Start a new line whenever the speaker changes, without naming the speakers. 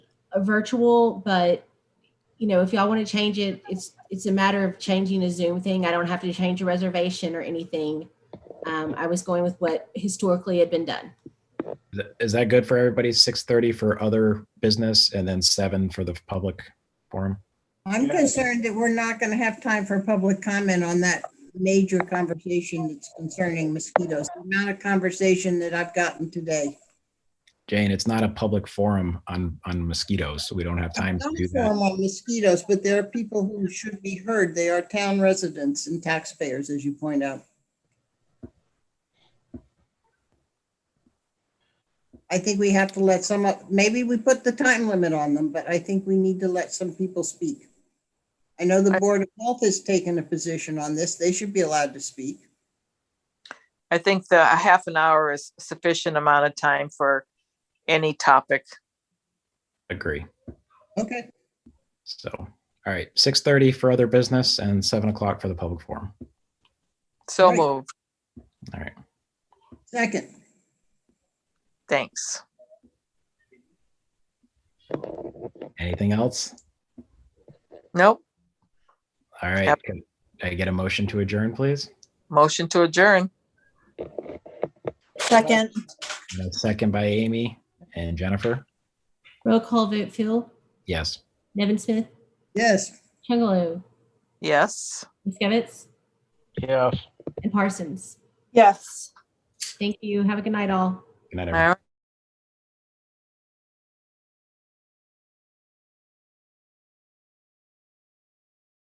a virtual, but you know, if y'all want to change it, it's, it's a matter of changing a Zoom thing. I don't have to change a reservation or anything. Um, I was going with what historically had been done.
Th- Is that good for everybody? Six thirty for other business and then seven for the public forum?
I'm
Yeah.
concerned that we're not going to have time for public comment on that major conversation that's concerning mosquitoes. The amount of conversation that I've gotten today.
Jane, it's not a public forum on, on mosquitoes, so we don't have time to
Some
do that.
form of mosquitoes, but there are people who should be heard. They are town residents and taxpayers, as you point out. I think we have to let some, of- maybe we put the time limit on them, but I think we need to let some people speak. I know the Board of Health has taken a position on this. They should be allowed to speak.
I think the a half an hour is sufficient amount of time for any topic.
Agree.
Okay,
So, all right, six thirty for other business and seven o'clock for the public forum.
So
Right.
moved.
All right.
second.
Thanks.
Anything else?
Nope.
All right.
Yep.
Can I get a motion to adjourn, please?
Motion to adjourn.
Second,
And a Second by Amy and Jennifer.
Roll call vote, Phil,
Yes.
Nevin Smith,
Yes,
Chungalo,
Yes.
Miskevitz,
Yes.
and Parsons.
yes.
Thank you. Have a good night, all.
Good night,
All
everyone.
right.